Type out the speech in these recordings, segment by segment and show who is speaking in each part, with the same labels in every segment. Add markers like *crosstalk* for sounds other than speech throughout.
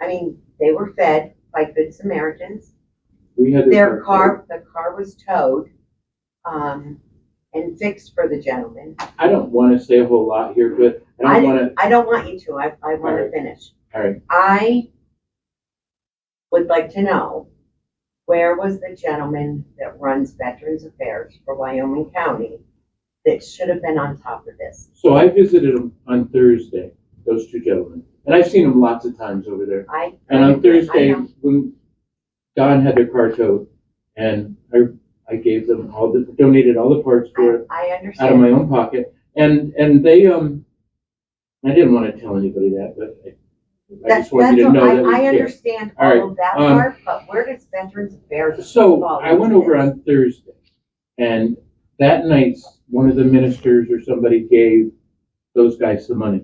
Speaker 1: I mean, they were fed by good Samaritans.
Speaker 2: We had
Speaker 1: Their car, the car was towed, um, and fixed for the gentleman.
Speaker 2: I don't want to say a whole lot here, but I don't want to.
Speaker 1: I don't want you to, I, I wanna
Speaker 2: Alright.
Speaker 1: finish.
Speaker 2: All right.
Speaker 1: I would like to know, where was the gentleman that runs Veterans Affairs for Wyoming County that should have been on top of this?
Speaker 2: So I visited them on Thursday. Those two gentlemen, and I've seen them lots of times over there.
Speaker 1: I.
Speaker 2: And on Thursday,
Speaker 1: I know.
Speaker 2: when Don had their car towed, and I, I gave them all the, donated all the parts for it.
Speaker 1: I, I
Speaker 2: out of
Speaker 1: understand.
Speaker 2: my own pocket. And and they um, I didn't want to tell anybody that, but I, I
Speaker 1: That's,
Speaker 2: just wanted you to
Speaker 1: that's all-
Speaker 2: know that
Speaker 1: I, I
Speaker 2: we care.
Speaker 1: understand
Speaker 2: All right,
Speaker 1: all of that
Speaker 2: um,
Speaker 1: part, but where does Veterans Affairs?
Speaker 2: So
Speaker 1: fall
Speaker 2: I went
Speaker 1: into
Speaker 2: over
Speaker 1: this?
Speaker 2: on Thursday, and that night one of the ministers or somebody gave those guys some money,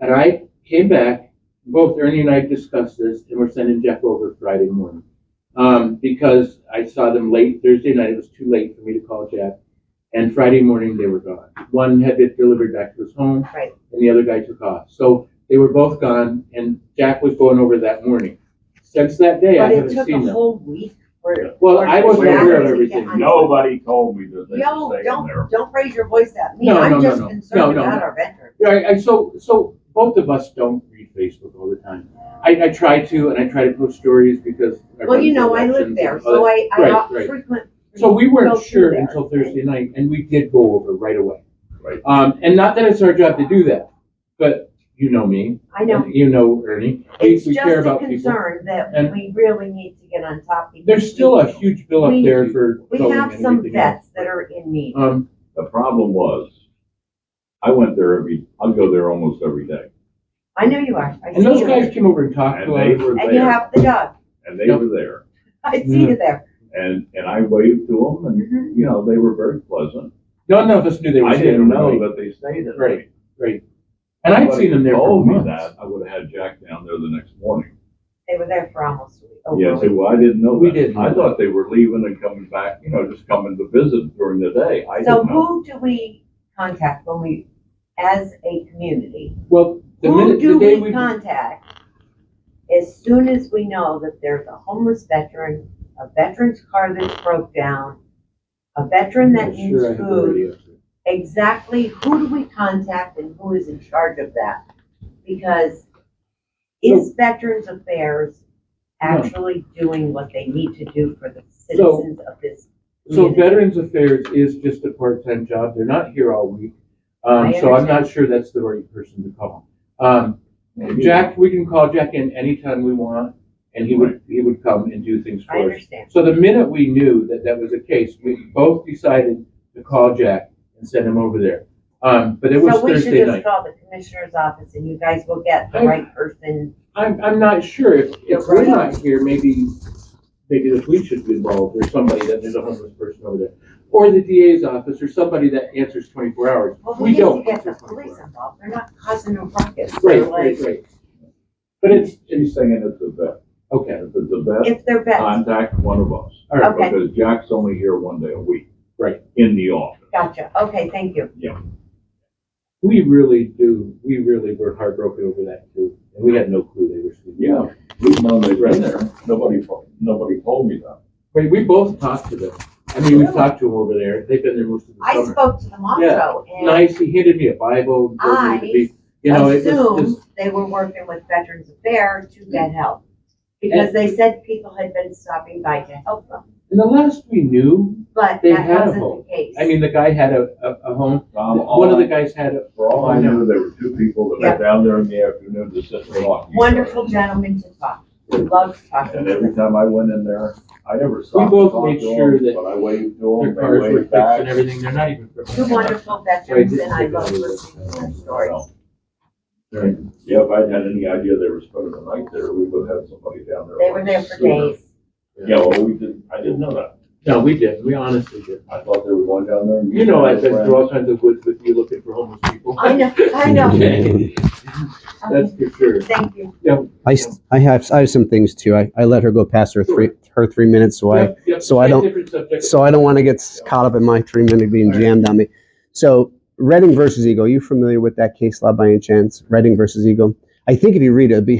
Speaker 2: and I came back. Both Ernie and I discussed this, and we're sending Jeff over Friday morning um, because I saw them late Thursday night. It was too late for me to call Jeff, and Friday morning they were gone. One had been delivered back to his home,
Speaker 1: Right.
Speaker 2: and the other guy took off. So they were both gone, and Jack was going over that morning. Since that day, I
Speaker 1: But it
Speaker 2: haven't
Speaker 1: took
Speaker 2: seen
Speaker 1: a
Speaker 2: them.
Speaker 1: whole week for.
Speaker 2: Well,
Speaker 1: for
Speaker 2: I wasn't
Speaker 1: Jack
Speaker 2: aware
Speaker 1: to
Speaker 2: of
Speaker 1: get
Speaker 2: everything.
Speaker 1: on-
Speaker 3: Nobody told me that they
Speaker 1: Yo,
Speaker 3: were staying there.
Speaker 1: don't, don't raise your voice at me,
Speaker 2: No, no,
Speaker 1: I'm
Speaker 2: no,
Speaker 1: just
Speaker 2: no. No,
Speaker 1: concerned
Speaker 2: no,
Speaker 1: about
Speaker 2: no.
Speaker 1: our veterans.
Speaker 2: Yeah, I, I, so, so both of us don't read Facebook all the time. I, I try to, and I try to post stories because. I
Speaker 1: Well,
Speaker 2: run
Speaker 1: you
Speaker 2: for
Speaker 1: know, I live
Speaker 2: elections
Speaker 1: there,
Speaker 2: and all
Speaker 1: so
Speaker 2: that.
Speaker 1: I,
Speaker 2: Right,
Speaker 1: I
Speaker 2: right.
Speaker 1: frequent.
Speaker 2: So we
Speaker 1: go
Speaker 2: weren't
Speaker 1: through
Speaker 2: sure
Speaker 1: there.
Speaker 2: until Thursday night, and we did go over right away.
Speaker 3: Right.
Speaker 2: Um, and not that it's our job to do that, but you know me.
Speaker 1: I know,
Speaker 2: and You know Ernie. We-
Speaker 1: it's
Speaker 2: we
Speaker 1: just
Speaker 2: care
Speaker 1: a
Speaker 2: about people.
Speaker 1: concern that
Speaker 2: And-
Speaker 1: we really need to get on top. because
Speaker 2: There's still a huge bill up
Speaker 1: We-
Speaker 2: there for.
Speaker 1: We
Speaker 2: towing
Speaker 1: have
Speaker 2: and
Speaker 1: some
Speaker 2: everything else.
Speaker 1: vets that are in need,
Speaker 2: Um,
Speaker 3: The problem was, I went there every, I go there almost every day.
Speaker 1: I know you are, I see
Speaker 2: and those
Speaker 1: you,
Speaker 2: guys came over and talked
Speaker 3: And
Speaker 2: to
Speaker 3: they
Speaker 2: us.
Speaker 3: were
Speaker 1: and you
Speaker 3: there,
Speaker 1: have the dog, *laughs*
Speaker 3: and they were there.
Speaker 1: I see
Speaker 2: Mm.
Speaker 1: you there, Mm-hmm.
Speaker 3: And, and I waved to them and, you know, they were very pleasant.
Speaker 2: None of us knew they were
Speaker 3: I
Speaker 2: staying
Speaker 3: didn't know
Speaker 2: overnight.
Speaker 3: that they stayed at
Speaker 2: Right.
Speaker 3: night.
Speaker 2: And I'd seen them there for
Speaker 3: Told me
Speaker 2: months.
Speaker 3: that, I would have had Jack down there the next morning.
Speaker 1: they were there for almost a week, Oh, over a
Speaker 3: Yeah,
Speaker 1: week.
Speaker 3: so well, I didn't know that.
Speaker 2: Oh, We didn't know
Speaker 3: I thought they were leaving and coming back, you know, just coming to visit during the day. I
Speaker 1: So
Speaker 3: didn't know.
Speaker 1: who do we contact when we, as a community?
Speaker 2: Well, the
Speaker 1: Who
Speaker 2: minute,
Speaker 1: do
Speaker 2: the day
Speaker 1: we
Speaker 2: we,
Speaker 1: contact as soon as we know that there's a homeless veteran, a veteran's car that's broke down, a veteran that
Speaker 2: I'm
Speaker 1: needs
Speaker 2: sure I have the
Speaker 1: food?
Speaker 2: radio.
Speaker 1: Exactly who do we contact and who is in charge of that? Because is Veterans Affairs actually doing what they need to do for the citizens of this
Speaker 2: So
Speaker 1: community?
Speaker 2: Veterans Affairs is just a part-time job. They're not here all week. Um,
Speaker 1: I
Speaker 2: so I'm not sure that's the right person to call. Um,
Speaker 3: Maybe-
Speaker 2: Jack, we can call Jack in anytime we want and he would, he would come and do things
Speaker 1: I
Speaker 2: for us.
Speaker 1: understand.
Speaker 2: So the minute we knew that that was the case, we both decided to call Jack and send him over there. Um, but it was
Speaker 1: So we should
Speaker 2: Thursday
Speaker 1: just
Speaker 2: night.
Speaker 1: call the commissioner's office and you guys will get the
Speaker 2: I-
Speaker 1: right person.
Speaker 2: I'm, I'm not sure if,
Speaker 1: You're
Speaker 2: if we're
Speaker 1: right.
Speaker 2: not here, maybe, maybe the police should be involved or somebody that there's a homeless person over there. Or the DA's office or somebody that answers twenty-four hours.
Speaker 1: Well,
Speaker 2: We
Speaker 1: we need
Speaker 2: don't
Speaker 1: to get the
Speaker 2: answer 24
Speaker 1: police involved, they're not causing a ruckus. They're
Speaker 2: Right, right,
Speaker 1: like,
Speaker 2: right. But it's,
Speaker 3: She's saying it's a vet.
Speaker 2: okay,
Speaker 3: If it's a vet,
Speaker 1: if they're vets,
Speaker 3: contact one of us.
Speaker 2: all right.
Speaker 1: Okay.
Speaker 3: Because Jack's only here one day a week.
Speaker 2: Right.
Speaker 3: In the office.
Speaker 1: gotcha, okay, thank you.
Speaker 2: We really do, we really were heartbroken over that too. And we had no clue they were sleeping.
Speaker 3: Yeah, we've known they've
Speaker 2: Right.
Speaker 3: been there. Nobody, fo- nobody told me that.
Speaker 2: Wait, we both talked to them. I mean, we've talked to them over there. They've been there most of
Speaker 1: I
Speaker 2: the summer.
Speaker 1: spoke to them also, and
Speaker 2: Nice, he handed me a Bible. and told me to be- You know, it was just.
Speaker 1: assumed they were working with Veterans Affairs to get help. Because they said people had been stopping by to help them,
Speaker 2: And the last we knew,
Speaker 1: but
Speaker 2: They
Speaker 1: that
Speaker 2: had a
Speaker 1: wasn't
Speaker 2: home.
Speaker 1: the case.
Speaker 2: I mean, the guy had a, a, a home.
Speaker 3: Tom, all
Speaker 2: One of
Speaker 3: I-
Speaker 2: the guys had a,
Speaker 3: For all I knew, there were two people that
Speaker 1: Yeah.
Speaker 3: were down there in the afternoon to sit and talk.
Speaker 1: Wonderful gentleman to talk, to. loves talking
Speaker 3: And
Speaker 1: to
Speaker 3: every
Speaker 1: them.
Speaker 3: time I went in there, I never stopped to
Speaker 2: both
Speaker 3: talk
Speaker 2: made
Speaker 3: to
Speaker 2: sure
Speaker 3: them,
Speaker 2: that
Speaker 3: but I waved to
Speaker 2: their
Speaker 3: them,
Speaker 2: cars
Speaker 3: they
Speaker 2: were
Speaker 3: waved
Speaker 2: fixed and
Speaker 3: back.
Speaker 2: everything. They're not even.
Speaker 1: Two
Speaker 3: *laughs*
Speaker 1: wonderful veterans, and I love listening to their stories.
Speaker 3: Yeah, if I'd had any idea they were spending the night there, we would have had somebody down there.
Speaker 1: They were there for
Speaker 3: sooner.
Speaker 1: days.
Speaker 3: Yeah, well, we didn't, I didn't know that.
Speaker 2: No, we did. We honestly did.
Speaker 3: I thought they were going down there. and
Speaker 2: You know, I've been
Speaker 3: friends.
Speaker 2: through all kinds of woods with you looking for homeless people.
Speaker 1: I know, I know.
Speaker 2: Okay. *laughs* That's
Speaker 1: Okay,
Speaker 2: for sure.
Speaker 1: Thank you.
Speaker 4: I, s- I have, I have some things too. I, I let her go past her three, her three minutes, so I,
Speaker 2: Yep, yep,
Speaker 4: so I don't-
Speaker 2: Different subject.
Speaker 4: so I don't want to get s- caught up in my three minute being
Speaker 2: All right.
Speaker 4: jammed on me. So Redding versus Eagle, you familiar with that case law by any chance? Redding versus Eagle? I think if you read it, it'd be